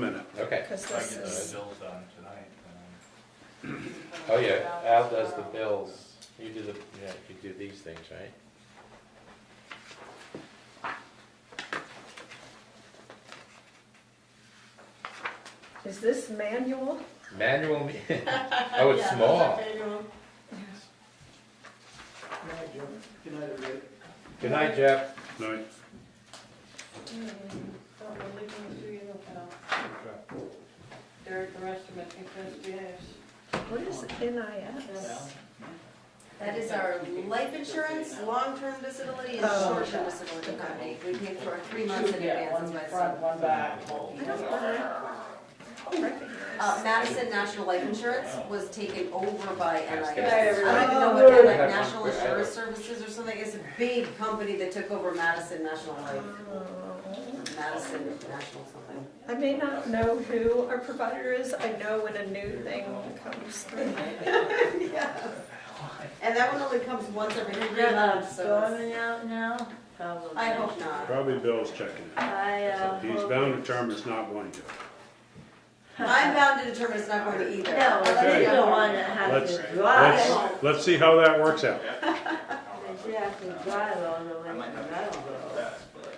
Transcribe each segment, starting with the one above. minute. Okay, Because If I this get the is, bills done tonight, um, then oh yeah, Al does the bills, you do the, yeah, you do these things, right? is this manual? Manual, me- oh, it's small. Good night, everybody. Good night, Jeff. No, Derek, uh, the rest of it, think this behaves. What is NIS? That is our life insurance, long-term disability, and Oh. short-term disability company. We pay for our three months in Yeah, advance, one is what it's. front, one back. I don't know. Oh, Uh, recognize. Madison National Life Insurance was taken over by NIS. Good I night, don't everyone. even know what, they're Oh, like good. National Insurance Services or something, it's a big company that took over Madison National Life, Oh. Madison National something. I may not know who our provider is, I know when a new thing comes through. And that one only comes once every three months, so it's- out now? Probably. I hope not. probably Bill's checking it. I, uh. He's hope- bound to term it's not going to. I'm bound to determine it's not going to either. No, Okay. they don't wanna have Let's- to let's- drive, Let's, let's see how that works out. they have to drive all the way I to might not be able to do Meadowbrook. that, but.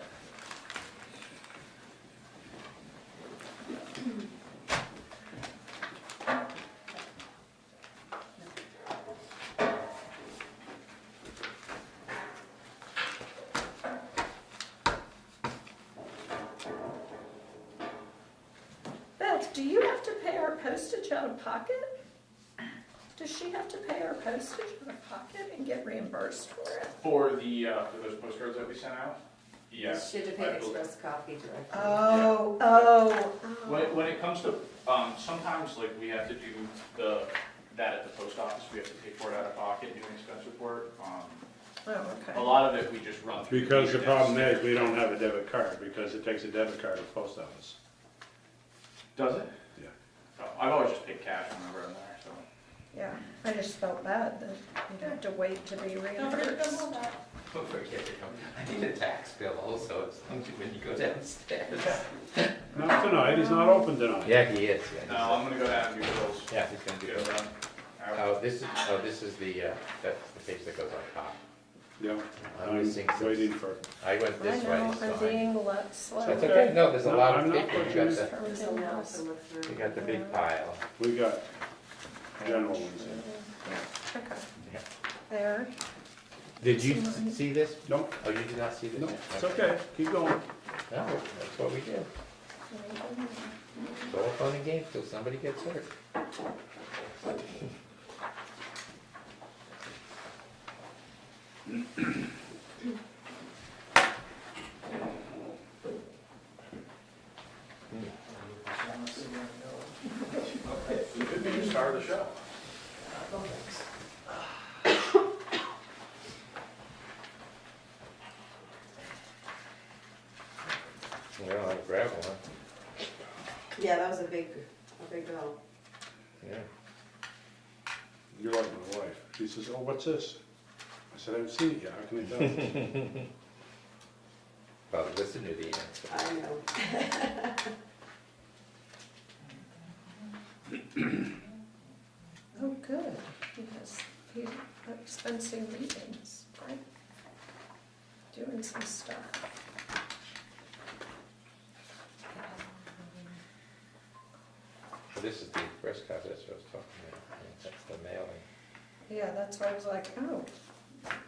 Beth, do you have to pay our postage out of pocket? Does she have to pay our postage out of pocket and get reimbursed for it? For the, uh, for those postcards that we sent out? Yes. She had to pay I an believe- express copy directly. Oh, oh, When, oh. when it comes to, um, sometimes like we have to do the, that at the post office, we have to pay for it out of pocket, do an expense report. Um, Oh, A okay. lot of it we just run through. Because the computer problem desk. is, we don't have a debit card, because it takes a debit card to the post office. Does it? Yeah. So I've always just paid cash whenever I'm there, so. Yeah, I just felt bad that you'd have to wait to be reimbursed. Don't forget, you know, I need a tax bill also, it's when you go downstairs. Not tonight, he's not open tonight. Yeah, he is, No, yeah. I'm gonna go down and do bills. he's- Yeah, he's gonna do Get it it. done. All right. Oh, this is, oh, this is the, uh, that's the page that goes on top. Yeah, I'm missing I'm some- waiting for, I went I this way, know, it's I'm fine. being let slow. That's okay, no, there's a No, lot of I'm not paper, you watching got this. the, There's a lot to look through. you got the big pile. we got general ones here. Okay. Yeah. There. Did you see this? No, Oh, you did not see this? no, it's okay, keep going. No, that's what we do. It's all fun and games till somebody gets hurt. You could be the star of the show. We don't have a gravel one, Yeah, that was a big, a big bill. yeah. You're like my wife. She says, oh, what's this? I said, I haven't seen it yet, how can I tell? Well, listen to the answer. I know. Oh, good, because he's expensing meetings, right? Doing some stuff. This is the express card, that's what I was talking about, Yeah, that's the mailing. Yeah, that's why I was like, oh,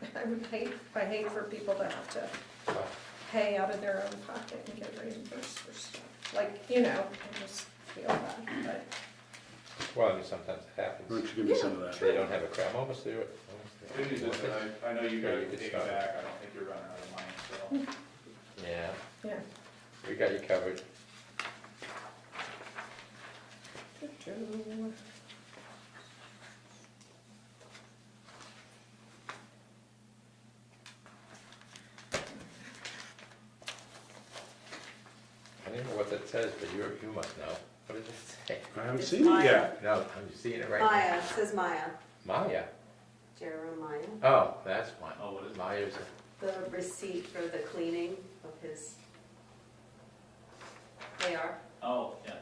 I would hate, I hate for people to have to Oh, pay out of their own pocket and get reimbursed for stuff. Like, you know, I just feel bad, but. Well, I mean, sometimes it Why happens, don't you give me some of that? they don't have a crowd, I'm almost there. Good news is that I, I know you Yeah, guys you can could take it start. back, I don't think you're running out of money, so. Yeah, Yeah. we got you covered. Doo-doo. I don't know what that says, but you, you must know. What does it say? I haven't It's seen it mine. yet. No, I'm seeing it right now. Maya, it says Maya, Maya, Jeremiah, oh, that's one. Oh, what is it? Maya's, the receipt for the cleaning of his. They are, Oh, yeah.